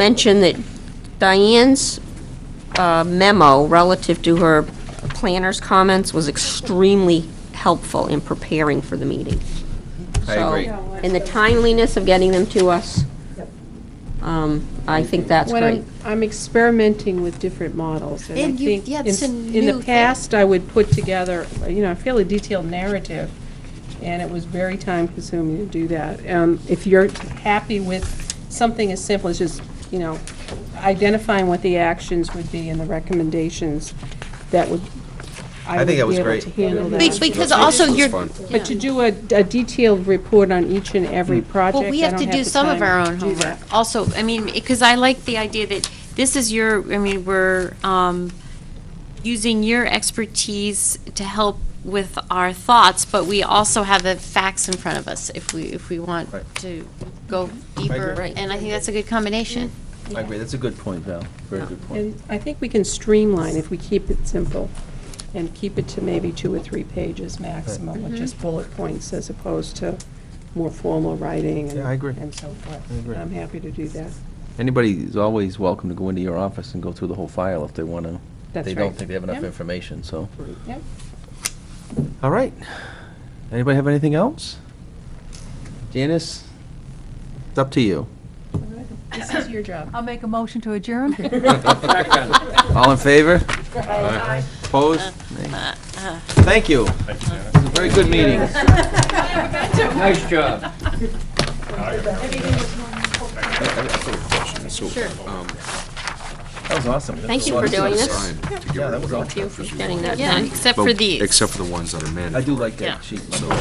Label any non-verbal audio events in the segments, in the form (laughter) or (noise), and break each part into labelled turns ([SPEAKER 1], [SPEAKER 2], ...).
[SPEAKER 1] mention that Diane's uh, memo relative to her planner's comments was extremely helpful in preparing for the meeting.
[SPEAKER 2] I
[SPEAKER 1] So,
[SPEAKER 2] agree.
[SPEAKER 1] And the timeliness of getting them to us, um, I think that's
[SPEAKER 3] What
[SPEAKER 1] great.
[SPEAKER 3] I'm, I'm experimenting with different models, and I
[SPEAKER 4] And you-
[SPEAKER 3] think
[SPEAKER 4] yeah,
[SPEAKER 3] in
[SPEAKER 4] it's
[SPEAKER 3] s-
[SPEAKER 4] a
[SPEAKER 3] in
[SPEAKER 4] new
[SPEAKER 3] the
[SPEAKER 4] thing.
[SPEAKER 3] past, I would put together, you know, a fairly detailed narrative, and it was very time-consuming to do that. Um, If you're happy with something as simple as just, you know, identifying what the actions would be and the recommendations, that would,
[SPEAKER 2] I
[SPEAKER 3] I would
[SPEAKER 2] think
[SPEAKER 3] be
[SPEAKER 2] that was
[SPEAKER 3] able
[SPEAKER 2] great.
[SPEAKER 3] to handle
[SPEAKER 4] Be-
[SPEAKER 3] that.
[SPEAKER 4] Because also
[SPEAKER 2] That's
[SPEAKER 4] you're,
[SPEAKER 2] fun.
[SPEAKER 3] But to do a a detailed report on each and
[SPEAKER 2] Mm.
[SPEAKER 3] every project,
[SPEAKER 4] well, we
[SPEAKER 3] I
[SPEAKER 4] have
[SPEAKER 3] don't
[SPEAKER 4] to do
[SPEAKER 3] the
[SPEAKER 4] some of
[SPEAKER 3] time
[SPEAKER 4] our
[SPEAKER 3] to
[SPEAKER 4] own
[SPEAKER 3] do that.
[SPEAKER 4] homework. Also, I mean, because I like the idea that this is your, I mean, we're um, using your expertise to help with our thoughts, but we also have the facts in front of us if we, if we want
[SPEAKER 2] Right.
[SPEAKER 4] to go
[SPEAKER 2] agree.
[SPEAKER 4] deeper.
[SPEAKER 2] Right.
[SPEAKER 4] And I think that's a good combination.
[SPEAKER 2] I agree, that's a good point, Val, very good point.
[SPEAKER 3] And I think we can streamline if we keep it simple and keep it to maybe two or three pages maximum, with just bullet points as opposed to more formal writing and
[SPEAKER 2] Yeah, I agree.
[SPEAKER 3] and so forth.
[SPEAKER 2] I agree.
[SPEAKER 3] I'm happy to do that.
[SPEAKER 5] Anybody is always welcome to go into your office and go through the whole file if they want to.
[SPEAKER 3] That's
[SPEAKER 5] They
[SPEAKER 3] right.
[SPEAKER 5] don't think they have enough
[SPEAKER 3] Yeah.
[SPEAKER 5] information, so.
[SPEAKER 3] Yep.
[SPEAKER 5] All right. Anybody have anything else? Janice, it's up to you.
[SPEAKER 3] This is your job.
[SPEAKER 6] I'll make a motion to
[SPEAKER 3] (laughs)
[SPEAKER 6] adjourn.
[SPEAKER 5] (laughs) All in favor? Opposed? Nay.
[SPEAKER 3] Uh,
[SPEAKER 5] Thank you. It was a very good meeting.
[SPEAKER 7] Nice job.
[SPEAKER 5] That was awesome.
[SPEAKER 1] Thank you for doing this,
[SPEAKER 2] Yeah, that was awesome.
[SPEAKER 1] for getting that
[SPEAKER 4] Yeah,
[SPEAKER 1] done.
[SPEAKER 4] except for these.
[SPEAKER 8] Except for the ones that are
[SPEAKER 5] I
[SPEAKER 8] mandatory.
[SPEAKER 5] do like
[SPEAKER 4] Yeah.
[SPEAKER 5] that sheet. So,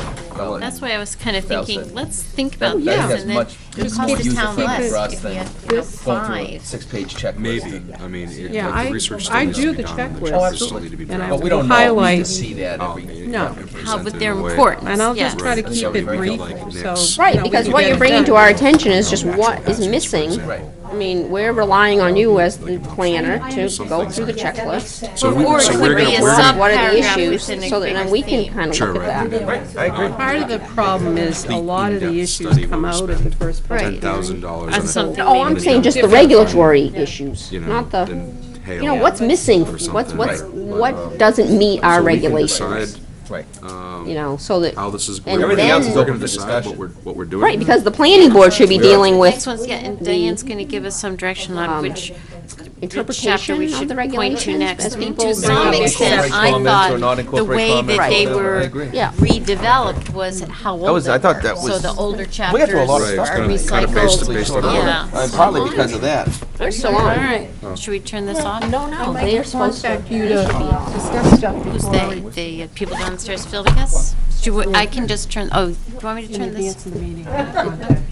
[SPEAKER 4] That's why I was kind of
[SPEAKER 5] That was
[SPEAKER 4] thinking,
[SPEAKER 5] it.
[SPEAKER 4] let's think
[SPEAKER 5] That-
[SPEAKER 4] about
[SPEAKER 5] I think
[SPEAKER 4] this
[SPEAKER 5] that's
[SPEAKER 4] and then
[SPEAKER 5] much-
[SPEAKER 4] it would
[SPEAKER 5] it's
[SPEAKER 4] cost
[SPEAKER 5] more
[SPEAKER 4] the town
[SPEAKER 5] user-friendly for
[SPEAKER 4] less
[SPEAKER 5] us
[SPEAKER 4] if we
[SPEAKER 5] than
[SPEAKER 4] had you know,
[SPEAKER 5] Going through a
[SPEAKER 4] five.
[SPEAKER 5] six-page checklist.
[SPEAKER 8] Maybe,
[SPEAKER 5] and-
[SPEAKER 8] I mean, it-
[SPEAKER 3] Yeah,
[SPEAKER 8] like
[SPEAKER 3] I-
[SPEAKER 8] the research
[SPEAKER 3] I
[SPEAKER 8] still needs
[SPEAKER 3] do
[SPEAKER 8] to be
[SPEAKER 3] the
[SPEAKER 8] done, and
[SPEAKER 3] checklist.
[SPEAKER 8] the charts
[SPEAKER 3] Absolutely.
[SPEAKER 8] still need to be
[SPEAKER 3] And I
[SPEAKER 5] But
[SPEAKER 8] drafted.
[SPEAKER 5] we don't know, we need to
[SPEAKER 3] Highlight.
[SPEAKER 5] see that
[SPEAKER 8] Oh,
[SPEAKER 5] every.
[SPEAKER 8] yeah,
[SPEAKER 3] No.
[SPEAKER 8] and
[SPEAKER 4] How,
[SPEAKER 8] presented
[SPEAKER 4] but
[SPEAKER 8] in
[SPEAKER 4] they're
[SPEAKER 8] a way-
[SPEAKER 4] important,
[SPEAKER 3] And I'll just
[SPEAKER 4] yes.
[SPEAKER 3] try to
[SPEAKER 8] Right.
[SPEAKER 3] keep
[SPEAKER 8] Something
[SPEAKER 3] it
[SPEAKER 8] like
[SPEAKER 3] brief,
[SPEAKER 8] next.
[SPEAKER 3] so. you
[SPEAKER 1] Right,
[SPEAKER 3] know, we
[SPEAKER 1] because
[SPEAKER 3] can
[SPEAKER 1] what
[SPEAKER 3] get
[SPEAKER 1] you're
[SPEAKER 3] it
[SPEAKER 1] bringing
[SPEAKER 3] done.
[SPEAKER 1] to our attention is just what is
[SPEAKER 8] Actions, for
[SPEAKER 1] missing.
[SPEAKER 8] example.
[SPEAKER 5] Right.
[SPEAKER 1] I mean, we're relying on you as the planner to go through the checklist.
[SPEAKER 8] So we,
[SPEAKER 4] Or it
[SPEAKER 8] so
[SPEAKER 4] could
[SPEAKER 8] we're
[SPEAKER 4] be
[SPEAKER 8] gonna,
[SPEAKER 4] a
[SPEAKER 8] we're
[SPEAKER 4] sub-
[SPEAKER 8] gonna,
[SPEAKER 1] What are the
[SPEAKER 4] Subparagraph
[SPEAKER 1] issues,
[SPEAKER 4] within a
[SPEAKER 1] so that then
[SPEAKER 4] bigger
[SPEAKER 1] we can
[SPEAKER 4] theme.
[SPEAKER 1] kind of
[SPEAKER 8] sure,
[SPEAKER 1] look at
[SPEAKER 8] right.
[SPEAKER 1] that.
[SPEAKER 5] I agree.
[SPEAKER 3] Part of the problem is a lot of the
[SPEAKER 8] in-depth
[SPEAKER 3] issues
[SPEAKER 8] study
[SPEAKER 3] come
[SPEAKER 8] where we
[SPEAKER 3] out at the
[SPEAKER 8] spend
[SPEAKER 3] first
[SPEAKER 4] Right.
[SPEAKER 3] page.
[SPEAKER 8] Ten thousand dollars
[SPEAKER 4] On
[SPEAKER 8] on it,
[SPEAKER 4] something.
[SPEAKER 1] Oh, I'm saying just the regulatory issues,
[SPEAKER 8] you know,
[SPEAKER 1] not the,
[SPEAKER 8] then
[SPEAKER 1] you know,
[SPEAKER 8] hail
[SPEAKER 1] what's missing?
[SPEAKER 8] or
[SPEAKER 1] What's,
[SPEAKER 8] something.
[SPEAKER 1] what's,
[SPEAKER 8] Right. uh,
[SPEAKER 1] what doesn't meet our
[SPEAKER 8] So we can
[SPEAKER 1] regulations?
[SPEAKER 8] decide um,
[SPEAKER 5] Right.
[SPEAKER 8] Uh,
[SPEAKER 1] You know, so that,
[SPEAKER 8] How this is.
[SPEAKER 1] And
[SPEAKER 8] we're gonna-
[SPEAKER 1] Everything else is
[SPEAKER 8] we're
[SPEAKER 5] open
[SPEAKER 8] gonna
[SPEAKER 5] for
[SPEAKER 8] decide
[SPEAKER 5] discussion.
[SPEAKER 8] What we're, what we're doing.
[SPEAKER 1] right, because the planning board should be dealing
[SPEAKER 4] Next
[SPEAKER 1] with
[SPEAKER 4] one's, yeah, and Diane's going to give us some direction on which chapter
[SPEAKER 1] interpretation
[SPEAKER 4] we
[SPEAKER 1] of
[SPEAKER 4] should
[SPEAKER 1] the
[SPEAKER 4] point to
[SPEAKER 1] regulations
[SPEAKER 4] next.
[SPEAKER 1] as
[SPEAKER 4] And
[SPEAKER 1] people.
[SPEAKER 4] To some
[SPEAKER 1] evaluate
[SPEAKER 4] extent,
[SPEAKER 5] comments
[SPEAKER 4] I
[SPEAKER 5] or not
[SPEAKER 4] thought the
[SPEAKER 5] incorporate
[SPEAKER 4] way
[SPEAKER 5] comments or
[SPEAKER 4] that they
[SPEAKER 5] whatever. I
[SPEAKER 4] were
[SPEAKER 5] agree.
[SPEAKER 1] Yeah.
[SPEAKER 4] redeveloped was how old
[SPEAKER 5] was-
[SPEAKER 4] they
[SPEAKER 5] I thought
[SPEAKER 4] were.
[SPEAKER 5] that
[SPEAKER 4] So
[SPEAKER 5] was-
[SPEAKER 4] the older
[SPEAKER 5] We
[SPEAKER 4] chapters
[SPEAKER 5] got through a lot of
[SPEAKER 8] Right,
[SPEAKER 5] stuff.
[SPEAKER 4] are
[SPEAKER 8] it's kinda- kinda based- based on-
[SPEAKER 4] recycled. Yeah.
[SPEAKER 5] And Partly because of that.
[SPEAKER 1] They're still on.
[SPEAKER 4] Should we turn this off?
[SPEAKER 1] No, they're supposed to.
[SPEAKER 3] You to discuss stuff
[SPEAKER 4] Who's
[SPEAKER 3] before
[SPEAKER 4] they,
[SPEAKER 3] we
[SPEAKER 4] the people downstairs filming us? Do we- I can just turn, oh, do you want me to turn this?
[SPEAKER 3] advance the meeting.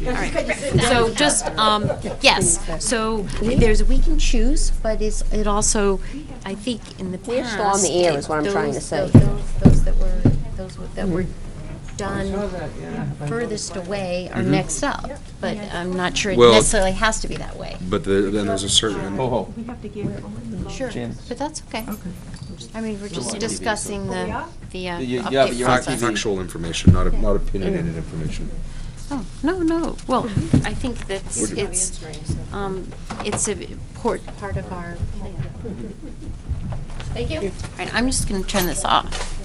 [SPEAKER 4] All right. So just, um, yes, so there's, we can choose, but it's, it also, I think in the past.
[SPEAKER 1] We're still on the air
[SPEAKER 4] it-
[SPEAKER 1] is what I'm trying to
[SPEAKER 4] those-
[SPEAKER 1] say.
[SPEAKER 4] Those those that were, those were- that were done furthest away
[SPEAKER 5] Mm-hmm.
[SPEAKER 4] are next up, but I'm not sure it
[SPEAKER 8] Well-
[SPEAKER 4] necessarily has to be that way.
[SPEAKER 8] But the, then there's a certain,
[SPEAKER 5] Ho, ho.
[SPEAKER 4] Sure,
[SPEAKER 5] Chance.
[SPEAKER 4] but that's okay. I mean, we're just discussing the, the
[SPEAKER 5] Yeah,
[SPEAKER 4] uh,
[SPEAKER 5] yeah, but
[SPEAKER 4] update
[SPEAKER 5] you're on
[SPEAKER 8] fact-
[SPEAKER 4] process.
[SPEAKER 5] TV.
[SPEAKER 8] factual information, not, not opinionated
[SPEAKER 1] Mm.
[SPEAKER 8] information.
[SPEAKER 4] Oh, no, no, well, I think that's, it's, um, it's a port, part of our plan. Thank you. All right, I'm just gonna turn this off.